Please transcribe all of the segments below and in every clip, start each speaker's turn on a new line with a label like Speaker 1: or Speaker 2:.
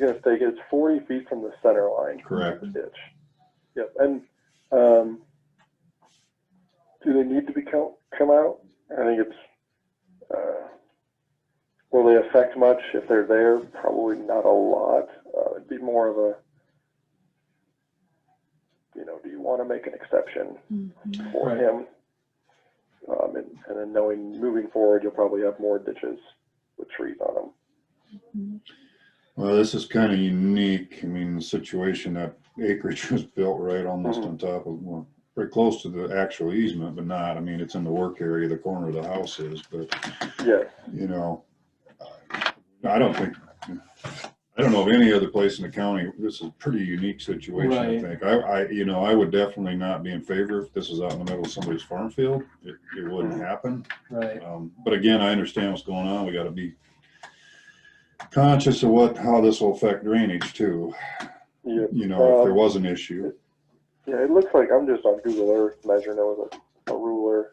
Speaker 1: You're gonna take, it's forty feet from the center line.
Speaker 2: Correct.
Speaker 1: the Ditch. Yep, and, um, do they need to be come, come out? I think it's, uh, will they affect much if they're there? Probably not a lot. Uh, it'd be more of a, you know, do you wanna make an exception for
Speaker 3: Mm-hmm.
Speaker 2: Right.
Speaker 1: him? Um, and, and then knowing, moving forward, you'll probably have more ditches with trees on them.
Speaker 2: Well, this is kind of unique. I mean, the situation that acreage was built right almost on top of, well, pretty close to the actual easement, but not, I mean, it's in the work area, the corner of the house is, but,
Speaker 1: Yes,
Speaker 2: you know, I- I don't think, I don't know of any other place in the county, this is a pretty unique situation, I
Speaker 4: Right.
Speaker 2: think. I, I, you know, I would definitely not be in favor if this is out in the middle of somebody's farm field. It, it wouldn't happen.
Speaker 4: Right.
Speaker 2: Um, But again, I understand what's going on. We gotta be conscious of what, how this will affect drainage too.
Speaker 1: yeah.
Speaker 2: You know, if there
Speaker 1: Uh,
Speaker 2: was an issue,
Speaker 1: Yeah, it looks like, I'm just on Google Earth measuring it with a, a ruler.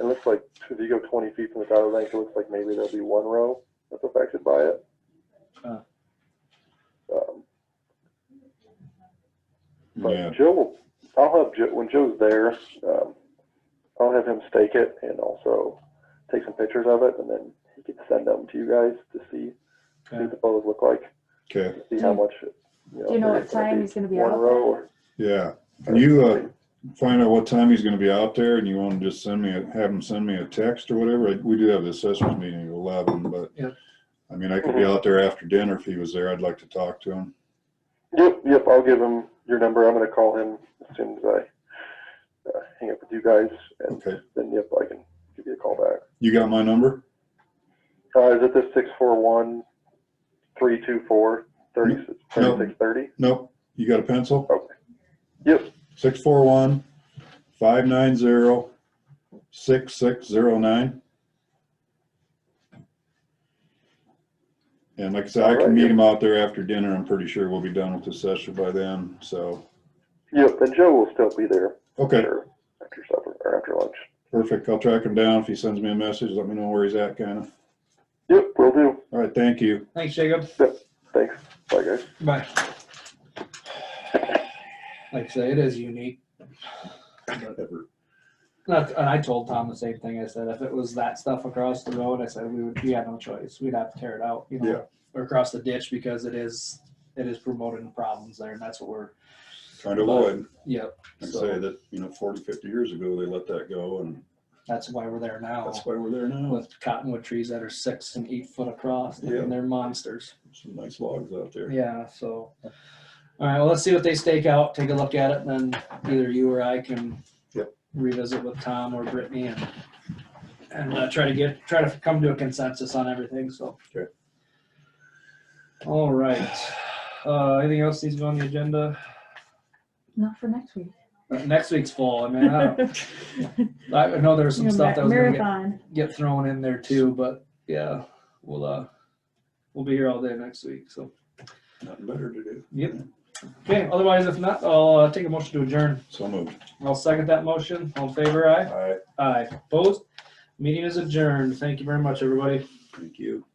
Speaker 1: It looks like if you go twenty feet from the dotted line, it looks like maybe there'll be one row that's affected by it.
Speaker 4: Huh.
Speaker 1: Um,
Speaker 2: yeah,
Speaker 1: But Joe, will- I'll have Joe, when Joe's there, um, I'll have him stake it and also take some pictures of it and then he can send them to you guys to see, see
Speaker 4: Okay.
Speaker 1: what the photos look like,
Speaker 2: okay,
Speaker 1: see how much. you know,
Speaker 3: Do you know
Speaker 1: if
Speaker 3: what
Speaker 1: it's gonna
Speaker 3: time
Speaker 1: be
Speaker 3: he's gonna be
Speaker 1: One
Speaker 3: out there?
Speaker 1: row or.
Speaker 2: yeah. Can you, uh, find out what time he's gonna be out there and you wanna just send me, a have him send me a text or whatever? We do have the assessors meeting at eleven, but
Speaker 4: Yep.
Speaker 2: I mean, I could be out there after dinner if he was there. I'd like to talk to him.
Speaker 1: Yep, yep, I'll give him your number. I'm gonna call him as soon as I uh, hang up with you guys, and
Speaker 2: Okay,
Speaker 1: then, yep, I can give you a call back.
Speaker 2: you got my number?
Speaker 1: Uh, is it the six four one three two four thirty six
Speaker 2: No.
Speaker 1: thirty six thirty?
Speaker 2: Nope, you got a pencil?
Speaker 1: Yep,
Speaker 2: Six four one, five nine zero, six six zero nine. And like I said, I can meet him out there after dinner. I'm pretty sure we'll be done with the session by then, so,
Speaker 1: yep, and Joe will still be there
Speaker 2: okay,
Speaker 1: after, after supper, or after lunch.
Speaker 2: perfect. I'll track him down. If he sends me a message, let me know where he's at, kinda.
Speaker 1: Yep, will do.
Speaker 2: All right, thank you.
Speaker 4: Thanks, Jacob.
Speaker 1: Thanks, bye guys.
Speaker 4: Bye. Like I say, it is unique. That's, and I told Tom the same thing. I said, if it was that stuff across the road, I said, we would, we had no choice. We'd have to tear it out, you
Speaker 2: Yeah.
Speaker 4: know, or across the ditch because it is, it is promoting problems there and that's what we're,
Speaker 2: Trying to avoid,
Speaker 4: yep.
Speaker 2: like I say,
Speaker 4: So
Speaker 2: that, you know, forty, fifty years ago, they let that go, and
Speaker 4: that's why we're there now
Speaker 2: that's why we're there now.
Speaker 4: with cottonwood trees that are six and eight foot across
Speaker 2: Yeah.
Speaker 4: and they're monsters.
Speaker 2: Some nice logs out there.
Speaker 4: Yeah, so, all right, well, let's see what they stake out, take a look at it, and then either you or I can
Speaker 2: Yep.
Speaker 4: revisit with Tom or Brittany and, and uh, try to get, try to come to a consensus on everything, so.
Speaker 2: Okay.
Speaker 4: All right, uh, anything else needs to go on the agenda?
Speaker 3: Not for next week.
Speaker 4: Uh, Next week's fall, I mean, I don't, I know there's some stuff that was gonna get,
Speaker 3: Marathon.
Speaker 4: get thrown in there too, but yeah, we'll, uh, we'll be here all day next week, so.
Speaker 2: Nothing better to do.
Speaker 4: Yep. Okay, otherwise, if not, I'll uh, take a motion to adjourn.
Speaker 2: So moved.
Speaker 4: I'll second that motion. All in favor, aye?
Speaker 2: All right,
Speaker 4: Aye. Opposed? Meeting is adjourned. Thank you very much, everybody.
Speaker 2: thank you.